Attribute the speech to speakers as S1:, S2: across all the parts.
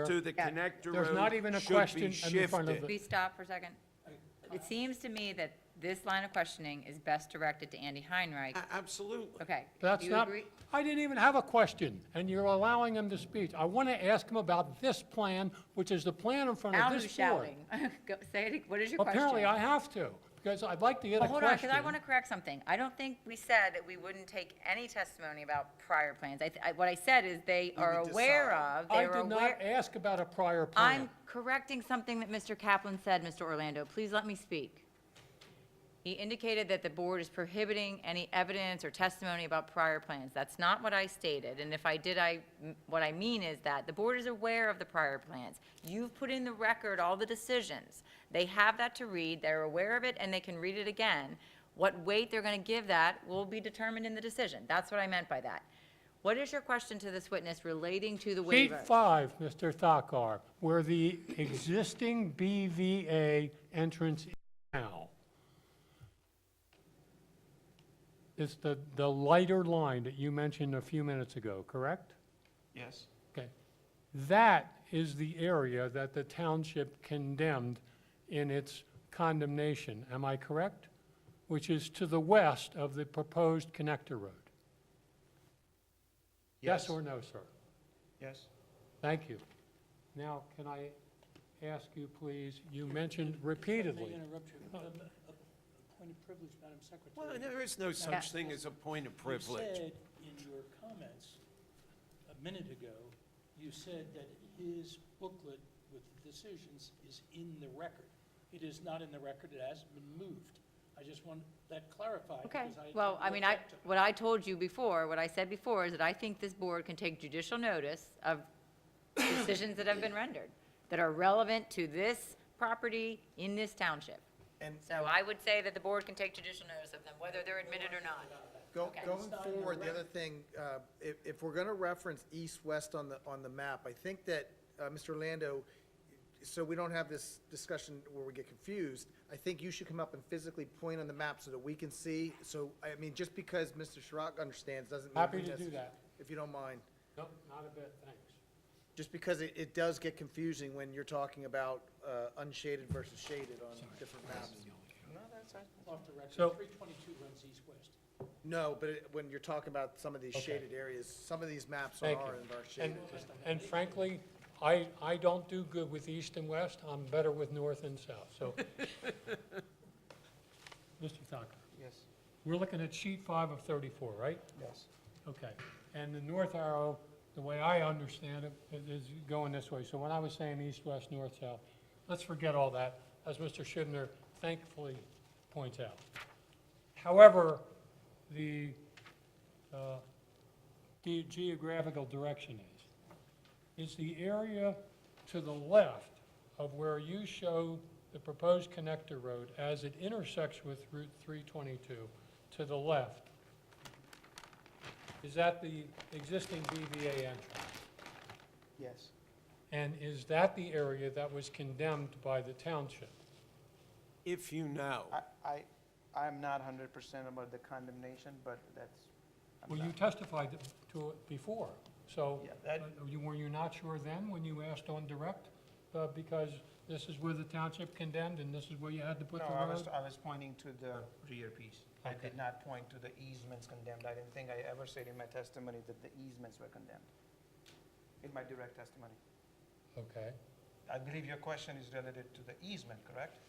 S1: to the
S2: Yeah.
S1: connector
S3: There's not even a
S1: road should
S3: question
S1: be
S3: in the front of
S1: shifted.
S3: it.
S2: Can we stop for a second? It seems to me that this line of questioning is best directed to Andy Heinrich.
S1: A- Absolutely.
S2: Okay.
S3: That's
S2: do you
S3: not,
S2: agree?
S3: I didn't even have a question, and you're allowing him to speak. I want to ask him about this plan, which is the plan in front
S2: Al
S3: of
S2: who's
S3: this board.
S2: shouting. Go- Say it, what is your question?
S3: Apparently, I have to, because I'd like to get a
S2: Well,
S3: question.
S2: hold on, because I want to correct something. I don't think we said that we wouldn't take any testimony about prior plans. I, th- I- what I said is they are aware of,
S3: I
S2: they were
S3: did not
S2: aware.
S3: ask about a prior plan.
S2: I'm correcting something that Mr. Kaplan said, Mr. Orlando. Please let me speak. He indicated that the board is prohibiting any evidence or testimony about prior plans. That's not what I stated, and if I did, I, what I mean is that the board is aware of the prior plans. You've put in the record all the decisions. They have that to read, they're aware of it, and they can read it again. What weight they're gonna give that will be determined in the decision. That's what I meant by that. What is your question to this witness relating to the
S3: Sheet
S2: waiver?
S3: five, Mr. Thakkar, where the existing BVA entrance is now. It's the, the lighter line that you mentioned a few minutes ago, correct?
S1: Yes.
S3: Okay. That is the area that the township condemned in its condemnation, am I correct? Which is to the west of the proposed connector road. Yes or no, sir?
S1: Yes.
S3: Thank you. Now, can I ask you, please, you mentioned repeatedly,
S4: May I interrupt you? Um, A a point of privilege, Madam
S1: Well,
S4: Secretary.
S1: there is no such thing as a point of
S4: You
S1: privilege.
S4: said in your comments a minute ago, you said that his booklet with the decisions is in the record. It is not in the record, it hasn't been moved. I just want that clarified.
S2: Okay,
S4: because
S2: well,
S4: didn't
S2: I
S4: look
S2: mean, I,
S4: up to-
S2: what I told you before, what I said before is that I think this board can take judicial notice of decisions that have been rendered, that are relevant to this property in this township.
S5: And
S2: So I would say that the board can take judicial notice of them, whether they're admitted or not.
S5: go-
S2: Okay.
S5: going forward, the other thing, uh, if, if we're going to reference east-west on the, on the map, I think that, uh, Mr. Orlando, so we don't have this discussion where we get confused, I think you should come up and physically point on the map so that we can see. So, I mean, just because Mr. Shrock understands doesn't mean.
S3: Happy
S5: he
S3: to do
S5: doesn't,
S3: that.
S5: If you don't mind.
S3: no, not a bit, thanks.
S5: Just because it, it does get confusing when you're talking about uh, unshaded versus shaded on different maps.
S4: Off the record,
S3: So-
S4: 322 runs east-west.
S5: No, but it- when you're talking about some of these
S3: Okay.
S5: shaded areas, some of these maps are
S3: Thank
S5: are
S3: you. And,
S5: shaded.
S3: and frankly, I, I don't do good with east and west, I'm better with north and south, so. Mr. Thacker? Yes. We're looking at sheet five of thirty-four, right?
S5: Yes.
S3: Okay, and the north arrow, the way I understand it, i- is going this way. So when I was saying east, west, north, south, let's forget all that, as Mr. Schindler thankfully points out. However, the uh, ge- geographical direction is, is the area to the left of where you show the proposed connector road as it intersects with Route 322, to the left, is that the existing BVA entrance?
S5: Yes.
S3: And is that the area that was condemned by the township?
S1: If you know,
S6: I, I, I'm not hundred percent about the condemnation, but that's. I'm
S3: Well, you
S6: not-
S3: testified to it before, so
S6: Yeah,
S3: uh,
S6: that-
S3: you- were you not sure then when you asked on direct? uh, Because this is where the township condemned and this is where you had to put
S6: No,
S3: the
S6: I was,
S3: road?
S6: I was pointing to the rear piece. I
S3: Okay.
S6: did not point to the easements condemned. I didn't think I ever said in my testimony that the easements were condemned. In my direct testimony.
S3: Okay,
S6: I believe your question is related to the easement, correct?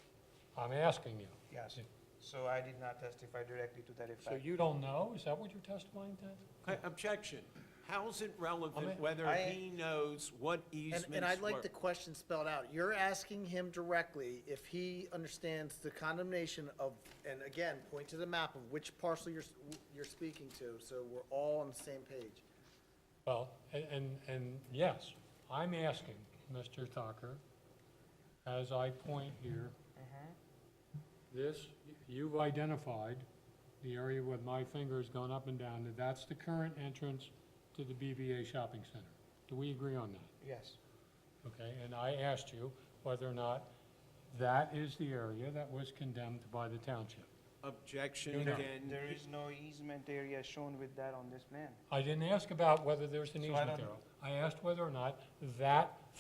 S3: I'm asking you.
S6: Yes. So I did not testify directly to that
S3: So
S6: effect.
S3: you don't know? Is that what you're testifying to?
S1: Okay, Uh, objection. How's it relevant
S3: Comment?
S1: whether
S6: I-
S1: he knows what
S5: And,
S1: easements
S5: and I'd like
S1: were?
S5: the question spelled out. You're asking him directly if he understands the condemnation of, and again, point to the map of which parcel you're, s- you're speaking to, so we're all on the same page.
S3: Well, a- and, and yes, I'm asking, Mr. Thacker, as I point here,
S6: Mm-hmm.
S3: this, you've identified the area where my finger's gone up and down, that that's the current entrance to the BVA shopping center. Do we agree on that?
S6: Yes.
S3: Okay, and I asked you whether or not that is the area that was condemned by the township.
S1: Objection
S3: You know.
S1: again.
S6: There is no easement area shown with that on this plan.
S3: I didn't ask about whether there's an
S6: So I
S3: easement there.
S6: don't-
S3: I asked whether or not that